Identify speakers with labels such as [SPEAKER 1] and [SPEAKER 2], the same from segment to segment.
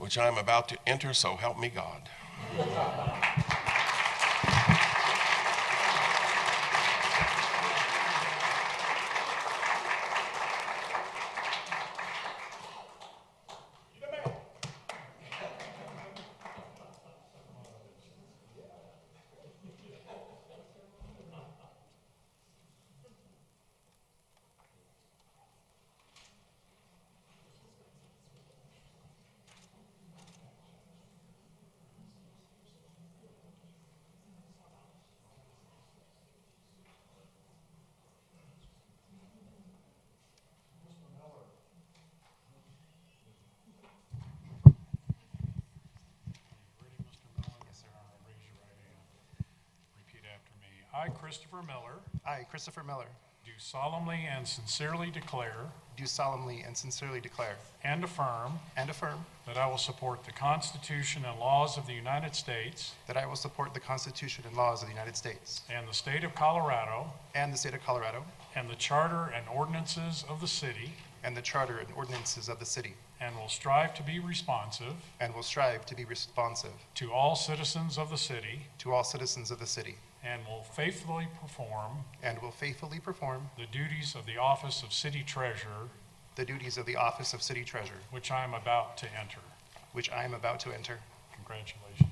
[SPEAKER 1] which I am about to enter, so help me God.
[SPEAKER 2] Ready, Mr. Miller? Yes, sir. Raise your right hand. Repeat after me. I, Christopher Miller,
[SPEAKER 3] I, Christopher Miller,
[SPEAKER 2] do solemnly and sincerely declare
[SPEAKER 3] do solemnly and sincerely declare
[SPEAKER 2] and affirm
[SPEAKER 3] and affirm
[SPEAKER 2] that I will support the Constitution and laws of the United States
[SPEAKER 3] that I will support the Constitution and laws of the United States
[SPEAKER 2] and the state of Colorado
[SPEAKER 3] and the state of Colorado
[SPEAKER 2] and the charter and ordinances of the city
[SPEAKER 3] and the charter and ordinances of the city,
[SPEAKER 2] and will strive to be responsive
[SPEAKER 3] and will strive to be responsive
[SPEAKER 2] to all citizens of the city
[SPEAKER 3] to all citizens of the city,
[SPEAKER 2] and will faithfully perform
[SPEAKER 3] and will faithfully perform
[SPEAKER 2] the duties of the office of city treasurer,
[SPEAKER 3] the duties of the office of city treasurer,
[SPEAKER 2] which I am about to enter.
[SPEAKER 3] which I am about to enter.
[SPEAKER 2] Congratulations.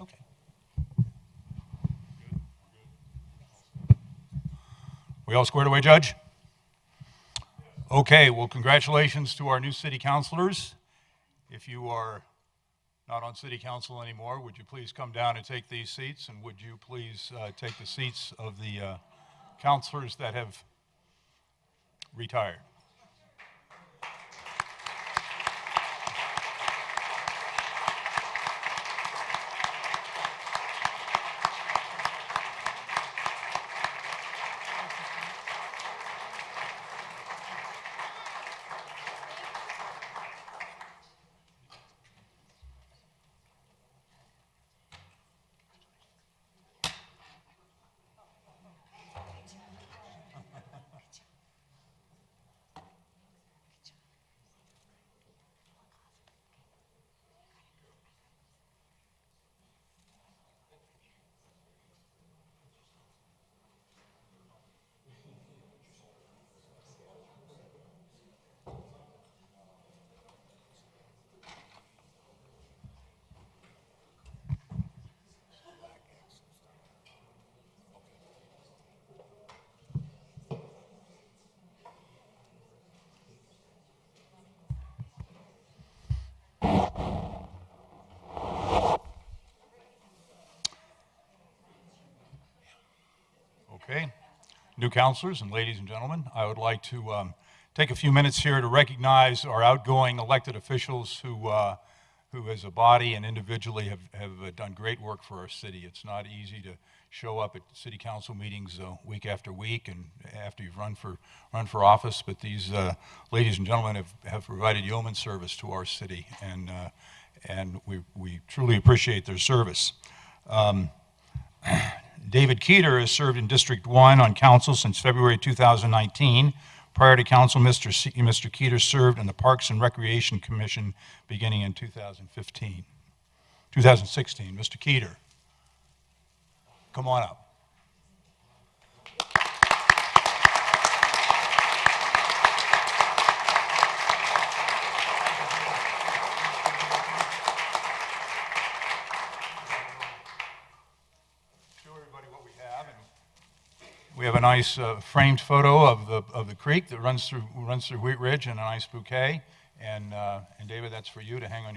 [SPEAKER 3] Okay.
[SPEAKER 4] We all squared away, Judge? Okay, well, congratulations to our new city councilors. If you are not on city council anymore, would you please come down and take these seats? And would you please uh, take the seats of the uh, councilors that have retired? Okay. New counselors and ladies and gentlemen, I would like to um, take a few minutes here to recognize our outgoing elected officials who, uh, who as a body and individually have, have uh, done great work for our city. It's not easy to show up at city council meetings uh, week after week and after you've run for, run for office, but these uh, ladies and gentlemen have, have provided yeoman service to our city, and, uh, and we, we truly appreciate their service. David Keeter has served in District 1 on council since February 2019. Prior to council, Mr. Se- Mr. Keeter served on the Parks and Recreation Commission beginning in 2015, 2016. Mr. Keeter, come on up. show everybody what we have. and We have a nice uh, framed photo of the, of the creek that runs through, runs through Wheat Ridge and a nice bouquet. And, uh, and David, that's for you to hang on your